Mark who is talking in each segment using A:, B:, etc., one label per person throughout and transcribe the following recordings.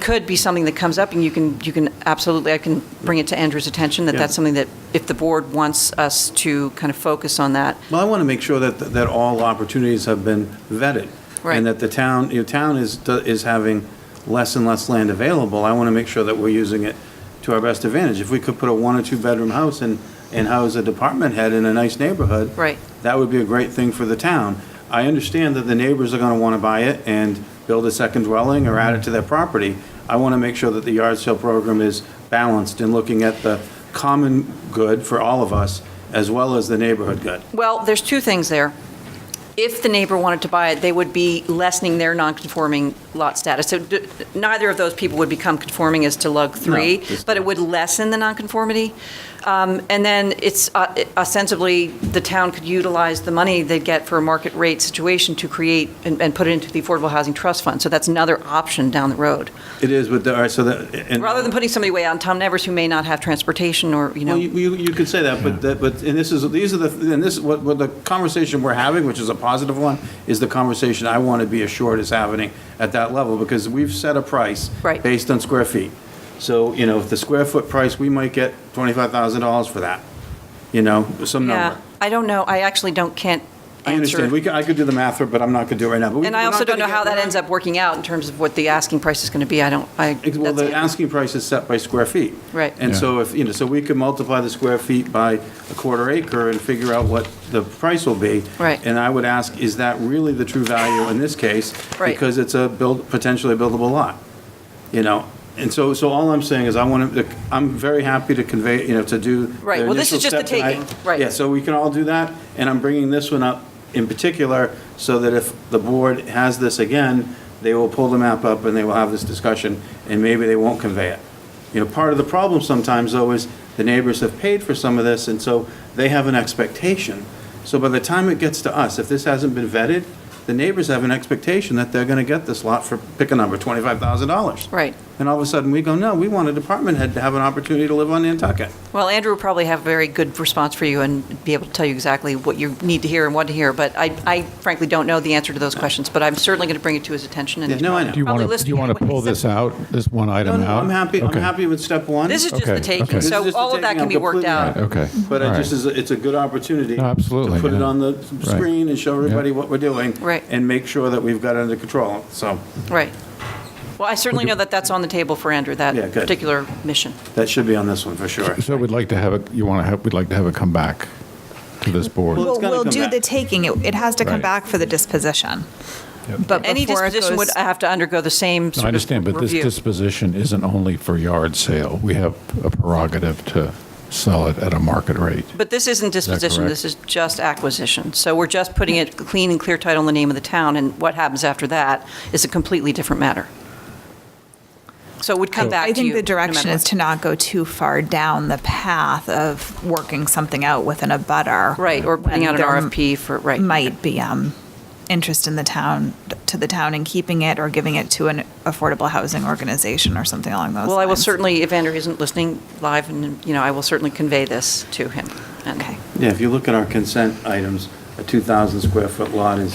A: could be something that comes up, and you can, you can absolutely, I can bring it to Andrew's attention, that
B: Yeah.
A: that's something that, if the board wants us to kind of focus on that,
B: Well, I want to make sure that, that all opportunities have been vetted.
A: Right.
B: And that the town, your town is, is having less and less land available. I want to make sure that we're using it to our best advantage. If we could put a one or two-bedroom house and, and house a department head in a nice neighborhood.
A: Right.
B: That would be a great thing for the town. I understand that the neighbors are going to want to buy it and build a second dwelling or add it to their property. I want to make sure that the yard sale program is balanced in looking at the common good for all of us as well as the neighborhood good.
A: Well, there's two things there. If the neighbor wanted to buy it, they would be lessening their non-conforming lot status. So d- neither of those people would become conforming as to lug three,
B: it's-
A: but it would lessen the nonconformity. Um, And then it's uh, it- ostensibly, the town could utilize the money they get for a market rate situation to create and and put it into the Affordable Housing Trust Fund. So that's another option down the road.
B: It is with the, all right, so that. and-
A: Rather than putting somebody way out in Tom Nevers who may not have transportation or, you know.
B: Well, you, you you could say that, but, that- but, and this is, these are the, and this, what, what the conversation we're having, which is a positive one, is the conversation I want to be assured is happening at that level, because we've set a price.
A: Right.
B: Based on square feet. So, you know, if the square foot price, we might get twenty-five thousand dollars for that, you know, some
A: Yeah,
B: number.
A: I don't know. I actually don't, can't
B: I
A: answer.
B: understand, we could, I could do the math, for it, but I'm not going to do it right now. But we-
A: And I
B: we're
A: also
B: not
A: don't know
B: gonna
A: how
B: get-
A: that
B: we're not-
A: ends up working out in terms of what the asking price is going to be. I don't, I.
B: Ex- Well,
A: that's-
B: the asking price is set by square feet.
A: Right.
B: And
C: Yeah.
B: so if, you know, so we could multiply the square feet by a quarter acre and figure out what the price will be.
A: Right.
B: And I would ask, is that really the true value in this case?
A: Right.
B: Because it's a build, potentially buildable lot, you know? And so, so all I'm saying is I want to, I'm very happy to convey, you know, to do. the
A: Right. Well, this is
B: initial
A: just
B: step
A: the
B: tonight.
A: taking. Right.
B: Yeah, so we can all do that, and I'm bringing this one up in particular, so that if the board has this again, they will pull the map up and they will have this discussion, and maybe they won't convey it. You know, part of the problem sometimes, though, is the neighbors have paid for some of this, and so they have an expectation. So by the time it gets to us, if this hasn't been vetted, the neighbors have an expectation that they're gonna get this lot for, pick a number, twenty-five thousand dollars.
A: Right.
B: And all of a sudden, we go, no, we want a department head to have an opportunity to live on Nantucket.
A: Well, Andrew will probably have a very good response for you and be able to tell you exactly what you need to hear and want to hear. But I, I frankly don't know the answer to those questions, but I'm certainly going to bring it to his attention. and
B: Yeah,
A: he's
B: no, I
A: probably-
B: know.
C: Do you
A: probably
C: want to, do
A: listening
C: you want
A: to
C: to
A: what
C: pull
A: he said.
C: this out, this one
B: No,
C: item
B: no,
C: out?
B: I'm happy, I'm
C: Okay.
B: happy with step one.
A: This is just
C: Okay,
A: the taking,
C: okay.
B: This
A: so
B: is just
A: all
B: the
A: of that
B: taking.
A: can
B: I'm
A: be worked
B: completely
A: out.
B: on it.
C: Okay.
B: But
C: All
B: it
C: right.
B: just is, it's a good opportunity.
C: No, absolutely,
B: To put it
C: yeah.
B: on the
C: Right.
B: screen and show everybody
C: Yeah.
B: what we're doing.
A: Right.
B: And make sure that we've got it under control, so
A: Right. Well, I certainly know that that's on the table for Andrew, that
B: Yeah, good.
A: particular mission.
B: that should be on this one for sure.
C: So we'd like to have it, you want to have, we'd like to have it come back to this board.
B: Well-
D: Well,
B: it's gotta
D: we'll
B: come
D: do
B: back.
D: the taking. It it has to come
C: Right.
D: back for the disposition.
C: Yep.
D: But
A: Any
D: before it
A: disposition would uh,
D: goes-
A: have to undergo the same
C: No, I
A: sort of
C: understand, but this
A: review.
C: disposition isn't only for yard sale. We have a prerogative to sell it at a market rate.
A: But this isn't disposition,
C: correct?
A: this is just acquisition. So we're just putting it clean and clear title in the name of the town, and what happens after that is a completely different matter. So it would come back
D: I
A: to you.
D: think the
A: no matter
D: direction
A: what.
D: is to not go too far down the path of working something out with an abutter.
A: Right, or putting
D: when
A: out an
D: there
A: RFP for, right.
D: Might be um, interest in the town, to the town in keeping it or giving it to an affordable housing organization or something along those lines.
A: Well, I will certainly, if Andrew isn't listening live, and, you know, I will certainly convey this to him. And-
D: Okay.
B: Yeah, if you look at our consent items, a 2,000 square foot lot is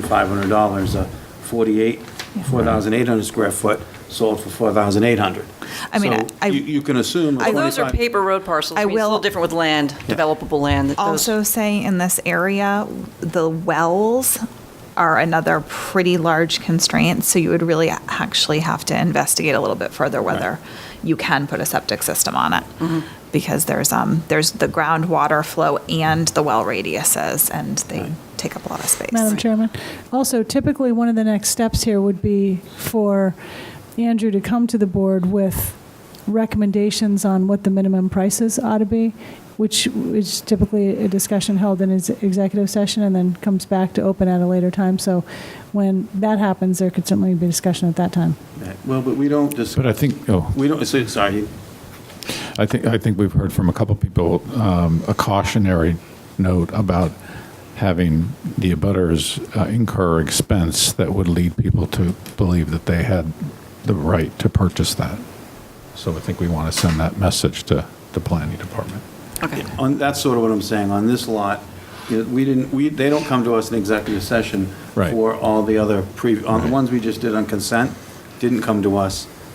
B: $2,500, a 48, 4,800 square foot sold for 4,800.
D: I mean,
B: So
D: I-
B: You you can assume. a
D: I-
A: Those are
B: 25
A: paper road parcels, I
D: I
A: mean, it's a
D: will-
A: little different with land, developable land. that those-
D: Also say in this area, the wells are another pretty large constraint, so you would really actually have to investigate a little bit further whether you can put a septic system on it. Because there's, um, there's the groundwater flow and the well radiuses, and they take up a lot of space.
E: Madam Chairman. Also, typically, one of the next steps here would be for Andrew to come to the board with recommendations on what the minimum prices ought to be, which is typically a discussion held in his executive session and then comes back to open at a later time. So when that happens, there could certainly be discussion at that time.
B: Well, but we don't just,
C: But I think, oh,
B: we don't, so- sorry,
C: I think, I think we've heard from a couple people um, a cautionary note about having the abutters uh, incur expense that would lead people to believe that they had the right to purchase that. So I think we want to send that message to the planning department.
A: Okay.
B: On, that's sort of what I'm saying, on this lot, you know, we didn't, we, they don't come to us in executive session
C: Right.
B: for all the other pre, on the
C: Right.
B: ones we just did on consent, didn't come to us